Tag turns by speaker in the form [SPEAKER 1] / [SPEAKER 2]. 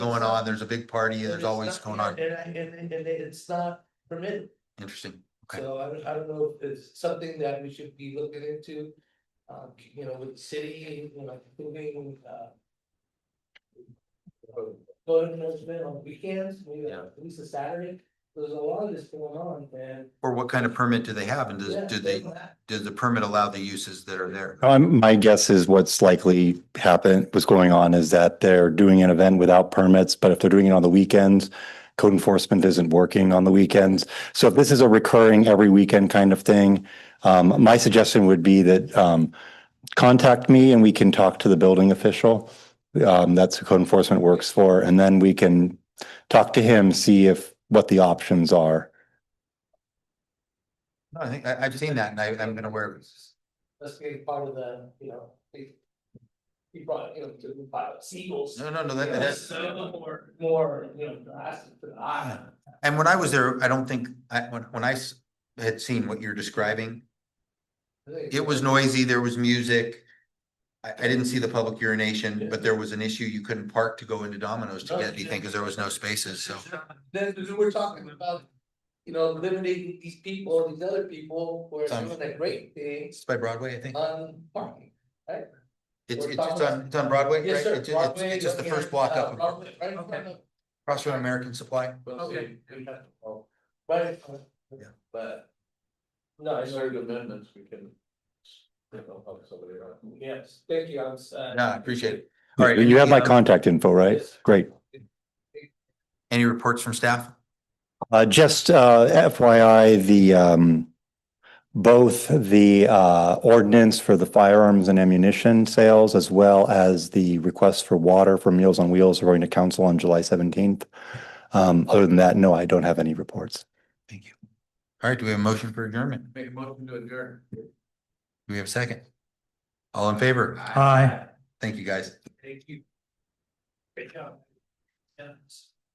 [SPEAKER 1] going on, there's a big party,
[SPEAKER 2] And
[SPEAKER 1] there's
[SPEAKER 2] it's
[SPEAKER 1] always
[SPEAKER 2] not-
[SPEAKER 1] going on,
[SPEAKER 2] And I, and, and, and it's not permitted,
[SPEAKER 1] interesting, okay,
[SPEAKER 2] so I don't, I don't know if it's something that we should be looking into. Uh, you know, with the city, you know, like moving, uh. Going enforcement on weekends, maybe
[SPEAKER 1] Yeah.
[SPEAKER 2] at least a Saturday, there's a lot of this going on and.
[SPEAKER 1] or what kind of permit do they have, and does,
[SPEAKER 2] yeah,
[SPEAKER 1] do they, does the permit allow the uses that are there?
[SPEAKER 3] Um, my guess is what's likely happened, what's going on is that they're doing an event without permits, but if they're doing it on the weekends, code enforcement isn't working on the weekends. So if this is a recurring every weekend kind of thing, um, my suggestion would be that, um, contact me and we can talk to the building official. Um, that's who code enforcement works for, and then we can talk to him, see if, what the options are.
[SPEAKER 1] No, I think, I, I've seen that, and I, I'm gonna wear,
[SPEAKER 2] That's being part of the, you know, they. He brought, you know, to the pilot, seagulls.
[SPEAKER 1] no, no, no, that, that's.
[SPEAKER 2] So more, more, you know, drastic to the eye.
[SPEAKER 1] And when I was there, I don't think, I, when, when I s- had seen what you're describing, it was noisy, there was music. I, I didn't see the public urination, but there was an issue, you couldn't park to go into Domino's to get anything, cause there was no spaces, so.
[SPEAKER 2] Then then we're talking about, you know, limiting these people, these other people who are
[SPEAKER 1] Sounds-
[SPEAKER 2] doing that great thing
[SPEAKER 1] It's by Broadway, I think.
[SPEAKER 2] on parking.
[SPEAKER 1] It's,
[SPEAKER 2] Uh, We're
[SPEAKER 1] it's, it's
[SPEAKER 2] talking-
[SPEAKER 1] on, it's on Broadway, right?
[SPEAKER 2] Yes, sir.
[SPEAKER 1] It's- it's-
[SPEAKER 2] Broadway,
[SPEAKER 1] It's just the
[SPEAKER 2] looking
[SPEAKER 1] first
[SPEAKER 2] at,
[SPEAKER 1] block
[SPEAKER 2] uh,
[SPEAKER 1] up,
[SPEAKER 2] Broadway, Right in front of.
[SPEAKER 1] across from American Supply.
[SPEAKER 2] Okay. Right. in front.
[SPEAKER 1] Yeah.
[SPEAKER 2] But. No, it's very good.
[SPEAKER 4] amendments, we can. You know, help somebody out.
[SPEAKER 2] Yes, thank you, I was. uh,
[SPEAKER 1] Yeah, I appreciate it. All right,
[SPEAKER 3] You have my
[SPEAKER 1] any, um,
[SPEAKER 3] contact info, right?
[SPEAKER 2] yes.
[SPEAKER 3] Great.
[SPEAKER 1] Any reports from staff?
[SPEAKER 3] Uh, just, uh, FYI, the, um, both the, uh, ordinance for the firearms and ammunition sales as well as the request for water for Meals on Wheels are going to council on July seventeenth. Um, other than that, no, I don't have any reports.
[SPEAKER 1] Thank you. All right, do we have a motion for adjournment? Do
[SPEAKER 4] Make a motion to adjourn.
[SPEAKER 1] we have a second? All in favor?
[SPEAKER 3] Aye.
[SPEAKER 1] Thank you, guys.
[SPEAKER 2] Thank you. Great job. Yes.